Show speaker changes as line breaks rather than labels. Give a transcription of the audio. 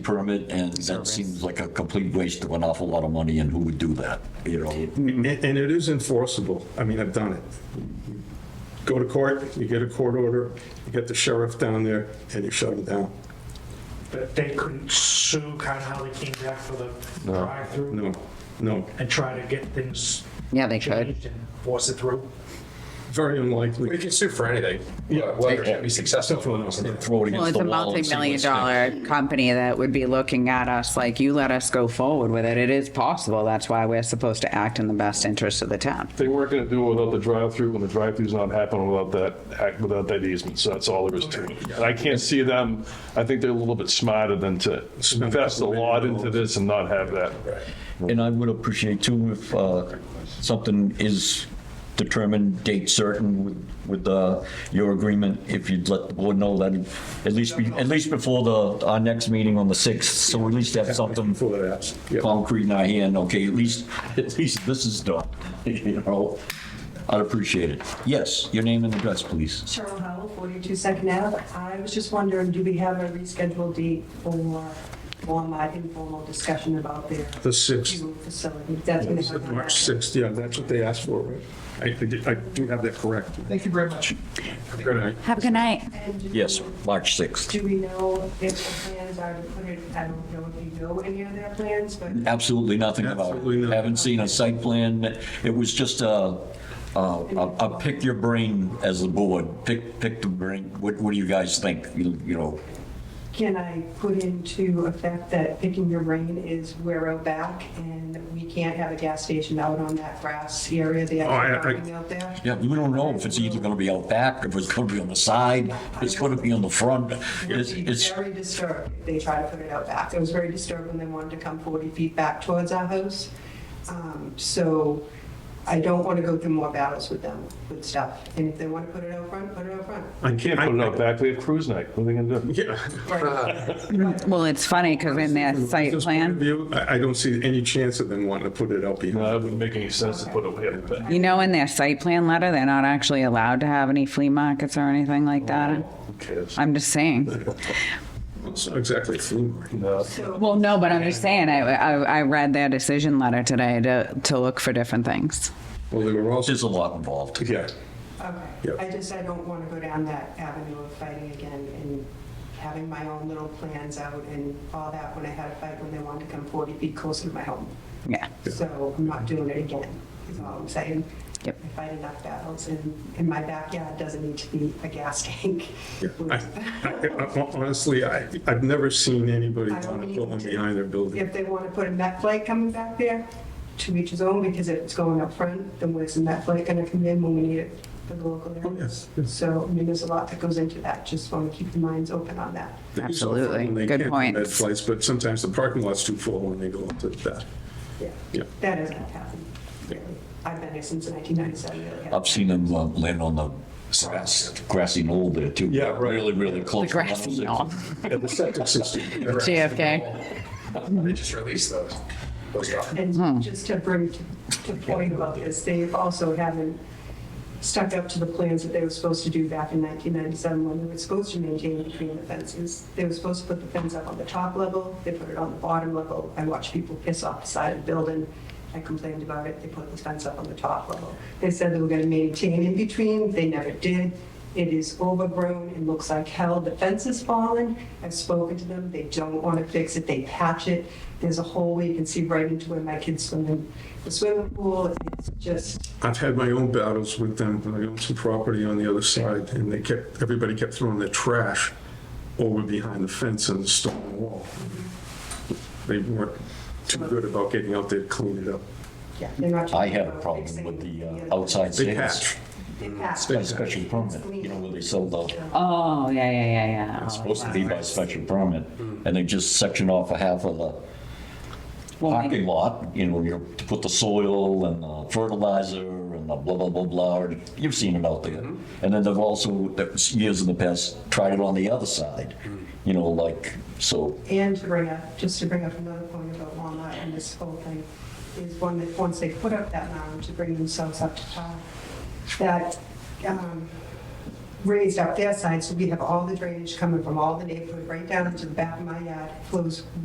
permit, and that seems like a complete waste of an awful lot of money, and who would do that, you know?
And, and it is enforceable. I mean, I've done it. Go to court, you get a court order, you get the sheriff down there, and you shut him down.
But they couldn't sue kind of how they came back for the drive-through
No, no,
and try to get things
Yeah, they could.
changed and force it through.
very
We
unlikely.
can sue for anything, Yeah, whether it should be successful. or not.
Throw it
Well,
against
it's
the
a
wall and see what
multi-million
sticks.
dollar company that would be looking at us like, you let us go forward with it. It is possible. That's why we're supposed to act in the best interest of the town.
They weren't gonna do it without the drive-through, and the drive-through's not happening without that, act- without that easement, so that's all there is to it. And I can't see them, I think they're a little bit smarter than to invest a lot into this and not have that.
And I would appreciate too if uh, something is determined, date certain with- with uh, your agreement, if you'd let the board know that, at least, be- at least before the, our next meeting on the 6th, so at least have something
For that, yeah.
concrete in our hand, okay, at least, at least this is done, you know? I'd appreciate it. Yes, your name and address, please.
Cheryl Howell, 42 Second Ave. I was just wondering, do we have a rescheduled date for, for my informal discussion about their
The sixth,
new facility? That's gonna happen.
March sixth, yeah, that's what they asked for, right? I, I did- I do have that correct.
Thank you very much.
Good night.
Have a good night.
And do-
Yes, March 6th.
Do we know if the plans are to put it, I don't know if you know any of their plans, but
Absolutely nothing about
Absolutely
it.
nothing.
Haven't seen a site plan. It was just a, a- a a pick your brain as the board, pick, pick the brain. What, what do you guys think? You you know,
can I put into effect that picking your brain is we're out back and we can't have a gas station out on that grass area, the
Oh, I- I-
actual parking out there?
yeah, we don't know if it's either going to be out back, if it's going to be on the side, if it's going to be on the front. It's,
would be
it's,
very disturbed if they tried to put it out back. It was very disturbed when they wanted to come 40 feet back towards our house. Um, So I don't want to go through more battles with them with stuff. And if they want to put it out front, put it out front.
I can't
Put it out back, we have cruise night, what are they gonna do?
Yeah.
Well, it's funny because in their
From a
site
business point of
plan,
view, I, I don't see any chance of them wanting to put it out behind.
No, it wouldn't make any sense to put it way up there.
you know, in their site plan letter, they're not actually allowed to have any flea markets or anything like that.
Who cares?
I'm just saying.
It's not Exactly. a flea market.
No.
Well, no, but I'm just saying, I, I, I read their decision letter today to, to look for different things.
Well, they were also,
there's a lot involved.
yeah.
Okay.
Yep.
I just, I don't want to go down that avenue of fighting again and having my own little plans out and all that when I had a fight when they wanted to come 40 feet closer to my home.
Yeah.
So I'm not doing it again, is all I'm saying.
Yep.
I fight enough battles, and, and my backyard doesn't need to be a gas tank.
Yeah, I- I- I- Honestly, I, I've never seen anybody
I don't
want to
need
put one
to.
behind their building.
If they want to put a net flight coming back there, to each his own, because if it's going up front, then where's the net flight gonna come in when we need it for the local
Oh,
areas?
yes, yes.
So, I mean, there's a lot that goes into that, just want to keep your minds open on that.
They use all
Absolutely.
fun when they
Good
can for
point.
Med flights, but sometimes the parking lot's too full and they go up to that. Yeah.
That hasn't happened. really. I've been here since 1997.
I've seen them uh, land on the grass- grassy knoll there too.
Yeah, right.
Really, really close.
The grassy knoll.
Yeah, the septic system.
JFK.
They just released those. Those documents.
And just to bring to to point about this, they also haven't stuck up to the plans that they were supposed to do back in 1997 when they were supposed to maintain between the fences. They were supposed to put the fence up on the top level, they put it on the bottom level. I watched people piss off the side of the building. I complained about it, they put the fence up on the top level. They said they were going to maintain in between, they never did. It is overgrown, it looks like hell, the fence is fallen. I've spoken to them, they don't want to fix it, they patch it. There's a hole where you can see right into where my kids swim in the swimming pool. It's just,
I've had my own battles with them. I own some property on the other side and they kept, everybody kept throwing their trash over behind the fence and the stone wall. They weren't too good about getting out there to clean it up.
Yeah, they're not
I
talking
had a
about
problem
fixing
with the uh,
other-
outside
They
sales.
patch.
They patch.
By special permit, you know, where they sell the
Oh, yeah, yeah, yeah, yeah. Oh,
supposed to be
wow.
by special permit, and they just section off a half of the
Well, maybe-
parking lot, you know, you to put the soil and the fertilizer and the blah, blah, blah, blah, or- you've seen it out there. And then they've also, that was years in the past, tried it on the other side, you know, like, so,
And to bring up, just to bring up another point about Walnut and this whole thing, is one that, once they put up that mound to bring themselves up to par, that um, raised up their side, so we have all the drainage coming from all the neighborhood, right down into the back of my yard, flows